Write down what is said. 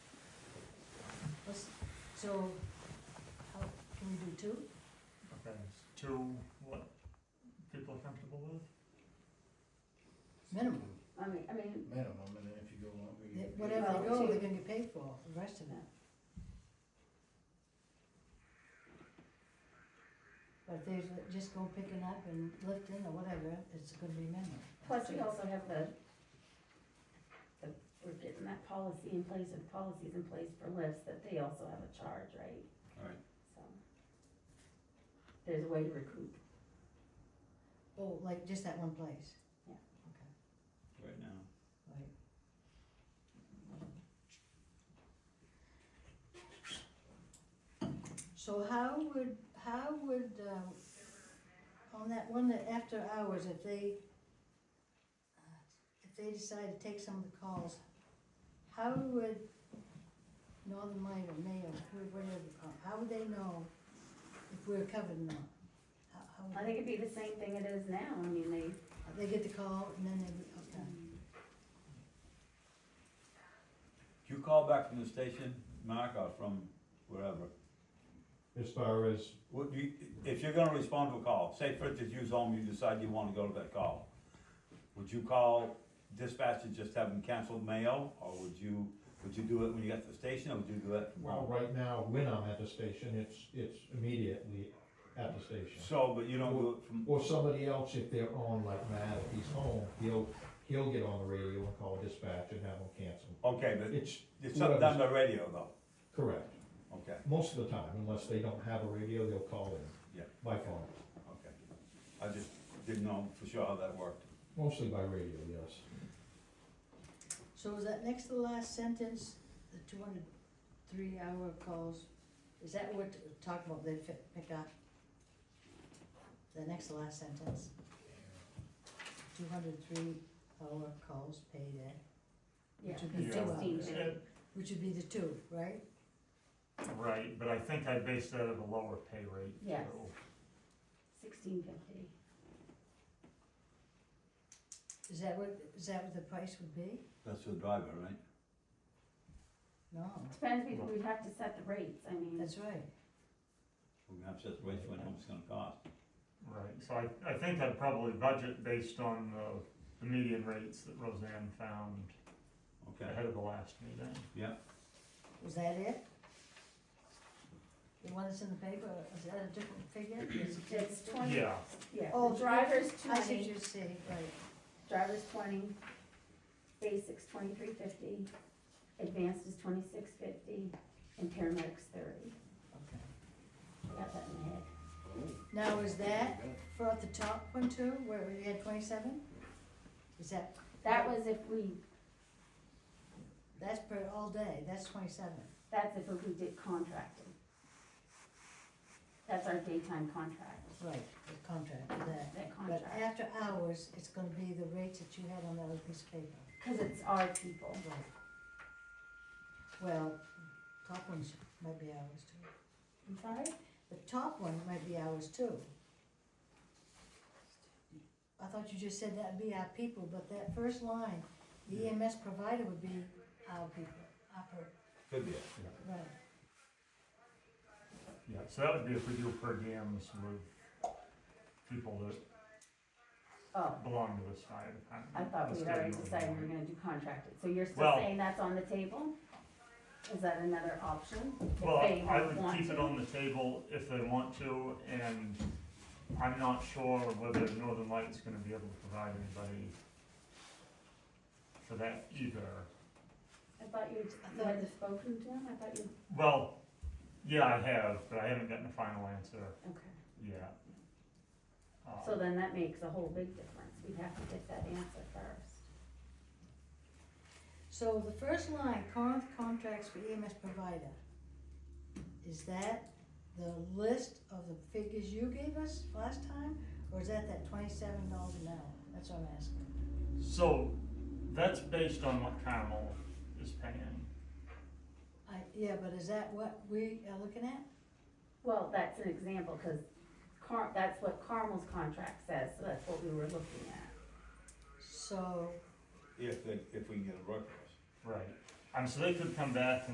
So, how, can we do two? Okay, two, what people are comfortable with? Minimum. I mean, I mean, minimum, and then if you go longer, you. They- get paid. Whatever Well, they go, they're two. gonna get paid for, the rest of that. But if they just go picking up and lifting or whatever, it's gonna be minimum. plus we also have the, the, we're getting that policy in place, and policies in place for lifts, that they also have a charge, right? Right. So. There's a way to recoup, Oh, like just that one place? Yeah. Okay, right now. right. So how would, how would, um, on that one that after hours, if they, uh, if they decide to take some of the calls, how would Northern Light or Mayo, who- whatever, uh, how would they know if we're covered or not? How, how would- I think it'd be the same thing it is now, I mean, they, They get the call and then they, okay. You call back from the station, Mark, or from wherever, As far as, What you, if you're gonna respond to a call, say for instance, you's home, you decide you wanna go to that call. Would you call dispatch and just have them cancel mail, or would you, would you do it when you got to the station, or would you do it from well, home? right now, when I'm at the station, it's, it's immediately at the station. So, but you don't do it from, Or somebody else, if they're on, like Matt, if he's home, he'll, he'll get on the radio and call dispatch and have them cancel. okay, but It's it's not done by radio though, correct, okay, most of the time, unless they don't have a radio, they'll call in. Yeah. By phone, okay. I just didn't know for sure how that worked. mostly by radio, yes. So is that next to the last sentence, the two hundred three hour calls, is that what we're talking about, they fi- pick up? The next to last sentence? Two hundred three hour calls paid at, yeah, Which would be Yeah. sixteen two fifty. which would be the two, right? Right, but I think I based that at a lower pay rate. Yes. so- Sixteen fifty. Is that what, is that what the price would be? That's the driver, right? No, Depends, we, we'd have to set the rates, I mean, that's right, We're gonna have to set the rates for how much it's gonna cost. Right, so I, I think I'd probably budget based on the, the median rates that Roseanne found Okay, ahead of the last meeting. yeah, was that it? The one that's in the paper, is that a different figure? Is it- it's twenty, Yeah, yeah, Oh, the driver's I see what twenty, you're saying, right. driver's twenty, basics twenty-three fifty, advanced is twenty-six fifty, and paramedics thirty. Okay. I got that in my head. Now, is that for at the top one too, where we had twenty-seven? Is that, That was if we, that's per all day, that's twenty-seven. that's if we did contracting. That's our daytime contract, Right. The contract, for that. that But contract, after hours, it's gonna be the rates that you had on that other piece of paper. cause it's our people. Right. Well, top ones might be hours too. I'm sorry? The top one might be ours too. I thought you just said that'd be our people, but that first line, the EMS provider would be our people, our, per- could be. right. yeah, so that would be if we do per diems with people that Oh, belong to this fire I department. thought we That's had already good. decided we were gonna do contracted, so you're still Well- saying that's on the table? Is that another option? If Well, they I would want keep it to? on the table if they want to, and I'm not sure whether Northern Light is gonna be able to provide anybody for that either. I thought you, you had spoken to him, I thought you, Well, yeah, I have, but I haven't gotten a final answer okay. yet. Um, So then that makes a whole big difference, we'd have to get that answer first. So the first line, Corinth contracts for EMS provider. Is that the list of the figures you gave us last time, or is that that twenty-seven dollars an hour? That's what I'm asking. Um, So, that's based on what Carmel is paying. I, yeah, but is that what we are looking at? Well, that's an example, cause Car, that's what Carmel's contract says, so that's what we were looking at. So. If, they- if we can get a workforce. Right. Um, so they could come back and